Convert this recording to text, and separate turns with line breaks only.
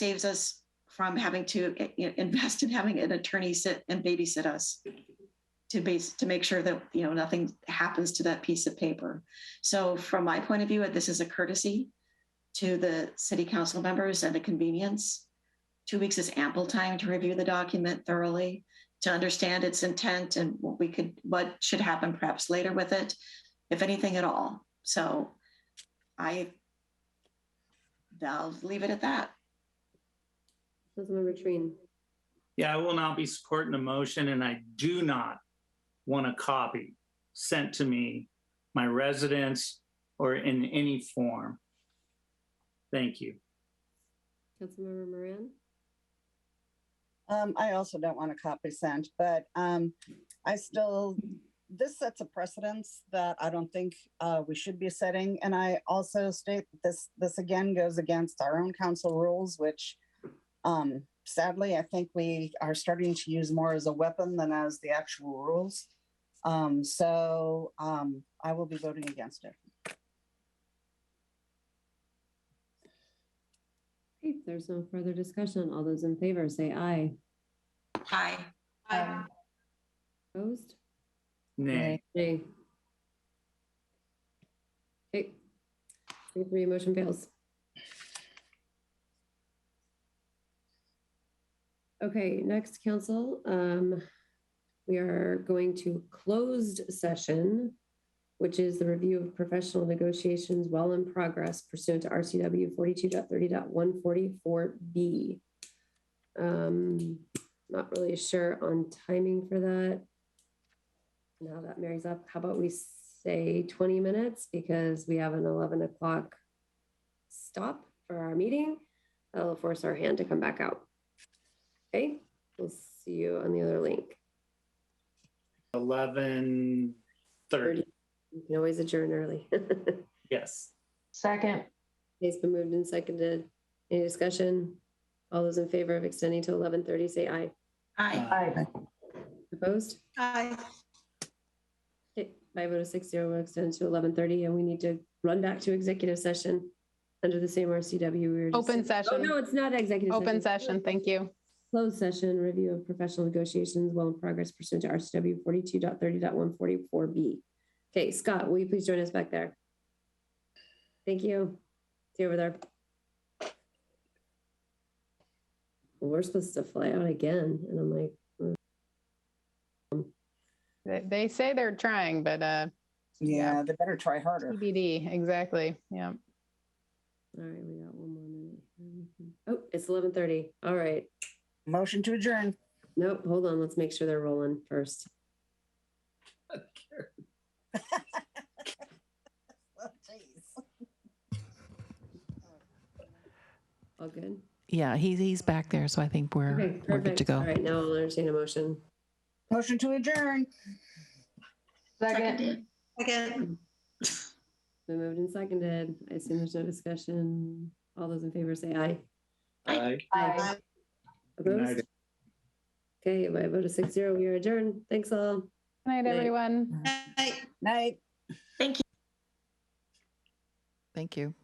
saves us from having to i- i- invest in having an attorney sit and babysit us to base, to make sure that, you know, nothing happens to that piece of paper. So from my point of view, this is a courtesy to the city council members and a convenience. Two weeks is ample time to review the document thoroughly, to understand its intent and what we could, what should happen perhaps later with it, if anything at all. So I, I'll leave it at that.
Councilmember Trine,
Yeah, I will not be supporting the motion and I do not want a copy sent to me, my residence, or in any form. Thank you.
Councilmember Moran,
Um, I also don't want a copy sent, but, um, I still, this sets a precedence that I don't think, uh, we should be setting. And I also state that this, this again goes against our own council rules, which, um, sadly, I think we are starting to use more as a weapon than as the actual rules. Um, so, um, I will be voting against it.
Okay, if there's no further discussion, all those in favor say aye.
Hi.
Aye.
Opposed?
Nay.
Nay. Okay. Three, three, motion fails. Okay, next council, um, we are going to closed session, which is the review of professional negotiations while in progress pursuant to RCW 42.30.144 B. Um, not really sure on timing for that. Now that marries up, how about we say twenty minutes because we have an eleven o'clock stop for our meeting. That'll force our hand to come back out. Okay, we'll see you on the other link.
Eleven thirty,
You can always adjourn early.
yes.
Second.
It's been moved and seconded. Any discussion? All those in favor of extending to eleven thirty, say aye.
Hi.
Aye.
Opposed?
Hi.
Okay, By a vote of six zero, we'll extend to eleven thirty and we need to run back to executive session under the same RCW. we were just
Open
in. Oh,
session.
no, it's not executive.
Open session, thank you.
Closed session, review of professional negotiations while in progress pursuant to RCW forty-two dot thirty dot one forty-four B. Okay, Scott, will you please join us back there? Thank you. See you over there. We're supposed to fly out again, and I'm like,
They, they say they're trying, but uh,
Yeah, they better try harder.
TBD, exactly, yeah.
all right, we got one more minute. Oh, it's eleven thirty. All right.
Motion to adjourn.
Nope, hold on. Let's make sure they're rolling first.
Oh, geez.
All good?
Yeah, he's he's back there, so I think we're
Okay,
we're good to
perfect. All
go.
right, now I'll entertain a motion.
Motion to adjourn.
Seconded. Second.
Been moved and seconded. I assume there's no discussion. All those in favor say aye.
Aye.
Aye.
Opposed? Okay, by a vote of six zero, we are adjourned. Thanks all.
Good night,
Night.
everyone.
Night.
Thank you.